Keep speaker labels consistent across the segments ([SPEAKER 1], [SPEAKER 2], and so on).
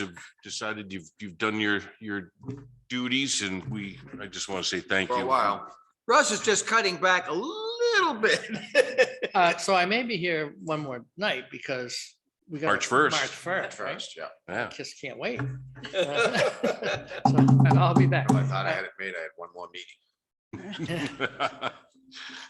[SPEAKER 1] have decided you've, you've done your, your duties and we, I just want to say thank you.
[SPEAKER 2] for a while. Russ is just cutting back a little bit.
[SPEAKER 3] Uh, so I may be here one more night because we got.
[SPEAKER 1] March 1st.
[SPEAKER 3] March first, right?
[SPEAKER 2] First, yeah.
[SPEAKER 1] Yeah.
[SPEAKER 3] Just can't wait.
[SPEAKER 2] If
[SPEAKER 3] So and I'll be back.
[SPEAKER 2] I thought I had it made, I had one more meeting.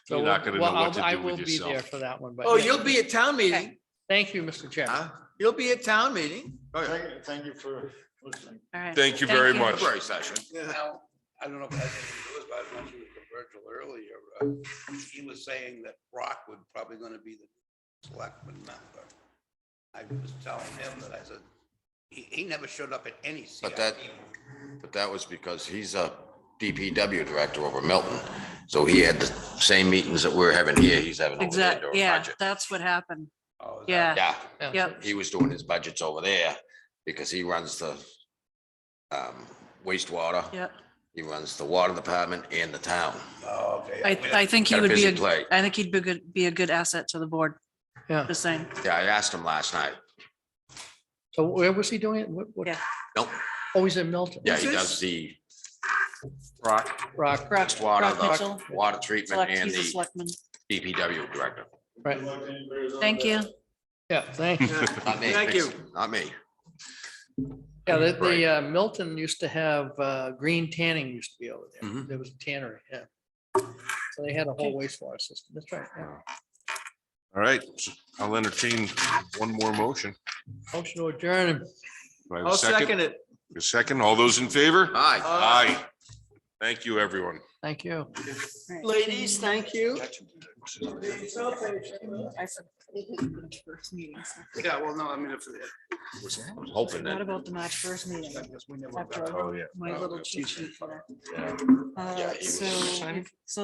[SPEAKER 3] So
[SPEAKER 1] You're not
[SPEAKER 3] we'll-
[SPEAKER 1] gonna know
[SPEAKER 3] well,
[SPEAKER 1] what to
[SPEAKER 3] I'll- I
[SPEAKER 1] do with
[SPEAKER 3] will be there
[SPEAKER 1] yourself.
[SPEAKER 3] For that one, but.
[SPEAKER 2] Oh,
[SPEAKER 3] yeah.
[SPEAKER 2] you'll be at town meeting,
[SPEAKER 3] Thank you, Mr. Chairman.
[SPEAKER 2] huh? You'll be at town meeting. Oh, yeah.
[SPEAKER 4] Thank thank you for listening.
[SPEAKER 5] All right.
[SPEAKER 1] Thank you very
[SPEAKER 5] Thank you.
[SPEAKER 1] much.
[SPEAKER 2] February session.
[SPEAKER 6] Now, I don't know if I it was, but I don't know if you were with Virgil earlier. uh, He was saying that Brock would probably gonna be the selectman member. I was telling him that I said, he, he never showed up at any CIP.
[SPEAKER 7] But that- But that was because he's a DPW director over Milton. So he had the same meetings that we're having here. He's having over there
[SPEAKER 5] Exact,
[SPEAKER 7] during
[SPEAKER 5] yeah,
[SPEAKER 7] budget.
[SPEAKER 5] that's what happened.
[SPEAKER 6] Oh, is that-
[SPEAKER 5] Yeah,
[SPEAKER 7] Yeah,
[SPEAKER 5] yep.
[SPEAKER 7] he was doing his budgets over there because he runs the um, wastewater.
[SPEAKER 5] Yep.
[SPEAKER 7] He runs the water department and the town.
[SPEAKER 6] Oh, okay.
[SPEAKER 5] I, I think he
[SPEAKER 7] Got a
[SPEAKER 5] would be,
[SPEAKER 7] busy
[SPEAKER 5] a.
[SPEAKER 7] plate.
[SPEAKER 5] I think he'd be good, be a good asset to the board,
[SPEAKER 3] Yeah.
[SPEAKER 5] just saying.
[SPEAKER 7] Yeah, I asked him last night.
[SPEAKER 3] So where was he doing it? What, what?
[SPEAKER 5] Yeah.
[SPEAKER 7] Nope.
[SPEAKER 3] Oh, he's in Milton.
[SPEAKER 7] Yeah, he
[SPEAKER 2] Who's
[SPEAKER 7] does the rock,
[SPEAKER 3] Rock.
[SPEAKER 7] water,
[SPEAKER 5] Rock Mitchell.
[SPEAKER 7] the water treatment
[SPEAKER 5] Select-
[SPEAKER 7] and
[SPEAKER 5] he's a
[SPEAKER 7] the
[SPEAKER 5] selectman.
[SPEAKER 7] DPW director.
[SPEAKER 3] Right.
[SPEAKER 5] Thank you.
[SPEAKER 3] Yeah, thank you.
[SPEAKER 7] Not me.
[SPEAKER 2] Thank you.
[SPEAKER 7] Not me.
[SPEAKER 3] Yeah, the,
[SPEAKER 7] Right.
[SPEAKER 3] the uh, Milton used to have, uh, green tanning used to be over there.
[SPEAKER 7] Mhm.
[SPEAKER 3] There was a tannery, yeah. So they had a whole wastewater system. That's right. yeah.
[SPEAKER 1] All right, I'll entertain one more motion.
[SPEAKER 3] Motion to adjourn.
[SPEAKER 1] Do I have a
[SPEAKER 2] I'll second it.
[SPEAKER 1] A second, all those in favor?
[SPEAKER 7] Hi.
[SPEAKER 1] Aye. Thank you, everyone.
[SPEAKER 3] Thank you.
[SPEAKER 2] Ladies, thank you.
[SPEAKER 6] Yeah, well, no, I mean, if.
[SPEAKER 7] Hoping
[SPEAKER 5] Forgot
[SPEAKER 7] that,
[SPEAKER 5] about the March first meeting.
[SPEAKER 6] we never.
[SPEAKER 7] Oh,
[SPEAKER 5] After I wrote my little cheat sheet for that.
[SPEAKER 7] yeah,
[SPEAKER 5] Uh,
[SPEAKER 7] he was-
[SPEAKER 5] So, so